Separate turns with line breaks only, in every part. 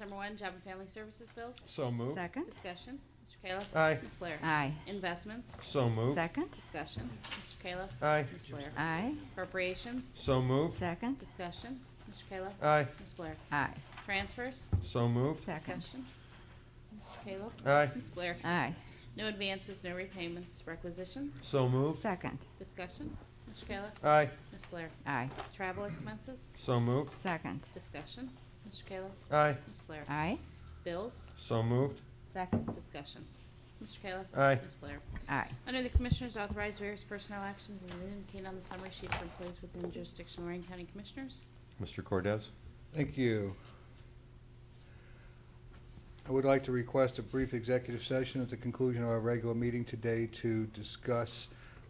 Number one, Job and Family Services bills.
So moved.
Second.
Discussion, Mr. Kayla.
Aye.
Ms. Blair.
Aye.
Investments,
So moved.
Second.
discussion, Mr. Kayla.
Aye.
Ms. Blair.
Aye.
Appropriations,
So moved.
Second.
discussion, Mr. Kayla.
Aye.
Ms. Blair.
Aye.
Transfers,
So moved.
Second.
discussion, Mr. Kayla.
Aye.
Ms. Blair.
Aye.
No advances, no repayments, requisitions,
So moved.
Second.
discussion, Mr. Kayla.
Aye.
Ms. Blair.
Aye.
Travel expenses,
So moved.
Second.
discussion, Mr. Kayla.
Aye.
Ms. Blair.
Aye.
Bills,
So moved.
Second.
discussion, Mr. Kayla.
Aye.
Ms. Blair.
Aye.
Under the Commissioners, authorize various personnel actions as indicated on the summary sheet for employees within jurisdiction of Lorraine County Commissioners.
Mr. Cordez?
Thank you. I would like to request a brief executive session at the conclusion of our regular meeting today to discuss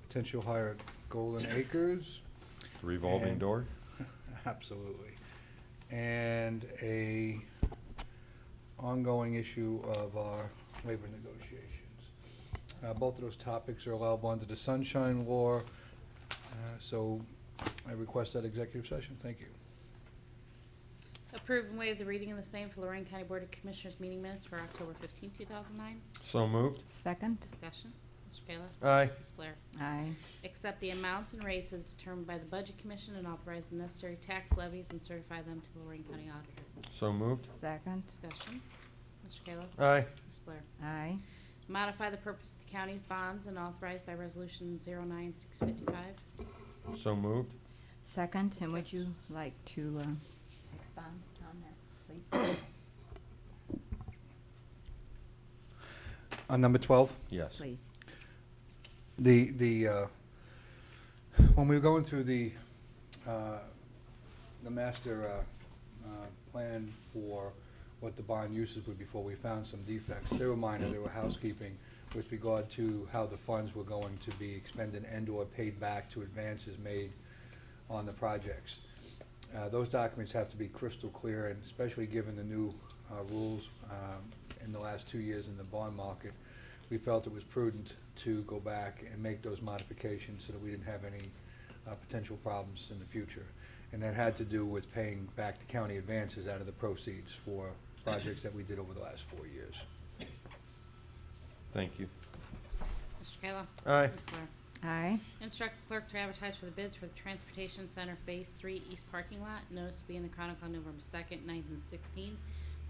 potential hire at Golden Acres.
The revolving
And-
door?
Absolutely. And a ongoing issue of our labor negotiations. Uh, Both of those topics are allowable under the Sunshine Law, uh, so I request that executive session. Thank you.
Approve and waive the reading of the same for Lorraine County Board of Commissioners meeting minutes for October 15, 2009.
So moved.
Second.
Discussion, Mr. Kayla.
Aye.
Ms. Blair.
Aye.
Accept the amounts and rates as determined by the Budget Commission and authorize the necessary tax levies and certify them to the Lorraine County Auditor.
So moved.
Second.
Discussion, Mr. Kayla.
Aye.
Ms. Blair.
Aye.
Modify the purpose of the county's bonds and authorized by Resolution 09655.
So moved.
Second. And would you
Discussion.
like to uh, expound on that, please?
On number 12?
Yes.
Please.
the the uh, when we were going through the uh, the master uh, uh, plan for what the bond uses would be for, we found some defects. They were minor. They were housekeeping with regard to how the funds were going to be expended and/or paid back to advances made on the projects. Uh, Those documents have to be crystal clear, and especially given the new uh, rules um, in the last two years in the bond market, we felt it was prudent to go back and make those modifications so that we didn't have any uh, potential problems in the future. And that had to do with paying back the county advances out of the proceeds for projects that we did over the last four years.
Thank you.
Mr. Kayla.
Aye.
Ms. Blair.
Aye.
Instruct the clerk to advertise for the bids for the Transportation Center Phase Three East Parking Lot. Notice to be in the Chronicle on November second, 9th, and sixteenth.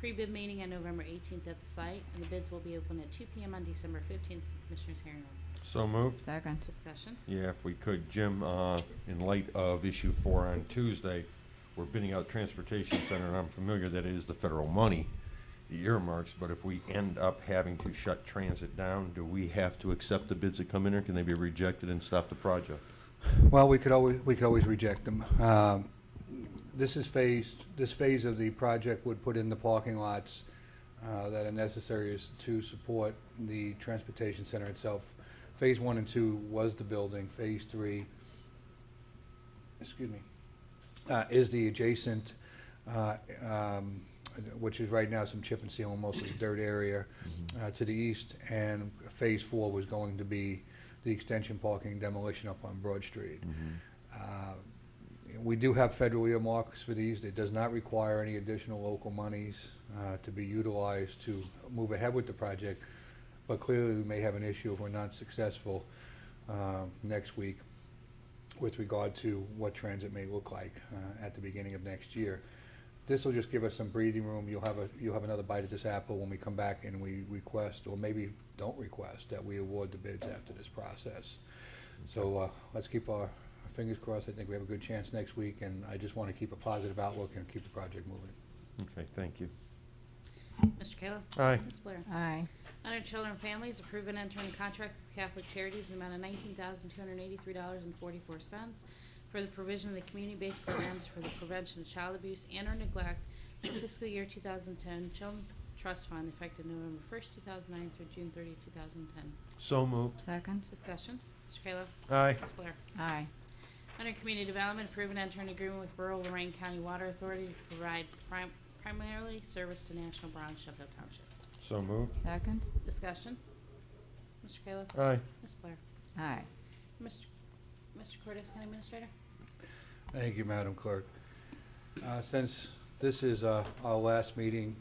Pre-bid meeting on November eighteenth at the site, and the bids will be open at two PM on December fifteenth. Commissioners hearing room.
So moved.
Second.
Discussion.
Yeah, if we could, Jim, uh, in light of issue four on Tuesday, we're bidding out transportation center, and I'm familiar that it is the federal money, the earmarks, but if we end up having to shut transit down, do we have to accept the bids that come in, or can they be rejected and stop the project?
Well, we could always, we could always reject them. Um, This is phased, this phase of the project would put in the parking lots uh, that are necessary is to support the transportation center itself. Phase one and two was the building, phase three, excuse me, uh, is the adjacent, uh, um, which is right now some chip and seal, and mostly dirt area uh, to the east, and phase four was going to be the extension parking demolition up on Broad Street.
Mm-hmm.
Uh, We do have federal earmarks for these. It does not require any additional local monies uh, to be utilized to move ahead with the project, but clearly we may have an issue if we're not successful uh, next week with regard to what transit may look like uh, at the beginning of next year. This will just give us some breathing room. You'll have a, you'll have another bite at this apple when we come back and we request, or maybe don't request, that we award the bids after this process. So uh, let's keep our fingers crossed. I think we have a good chance next week, and I just want to keep a positive outlook and keep the project moving.
Okay, thank you.
Mr. Kayla.
Aye.
Ms. Blair.
Aye.
Under Children and Families, approve and enter into contract with Catholic Charities in the amount of nineteen thousand two hundred eighty-three dollars and forty-four cents for the provision of the community-based programs for the prevention of child abuse and or neglect for fiscal year two thousand ten Children's Trust Fund effective November first, two thousand nine through June 30, 2010.
So moved.
Second.
Discussion, Mr. Kayla.
Aye.
Ms. Blair.
Aye.
Under Community Development, approve and enter an agreement with rural Lorraine County Water Authority to provide prim- primarily service to National Bronze Sheffield Township.
So moved.
Second.
Discussion, Mr. Kayla.
Aye.
Ms. Blair.
Aye.
Mr. Mr. Cortez, County Administrator?
Thank you, Madam Clerk. Uh, Since this is uh, our last meeting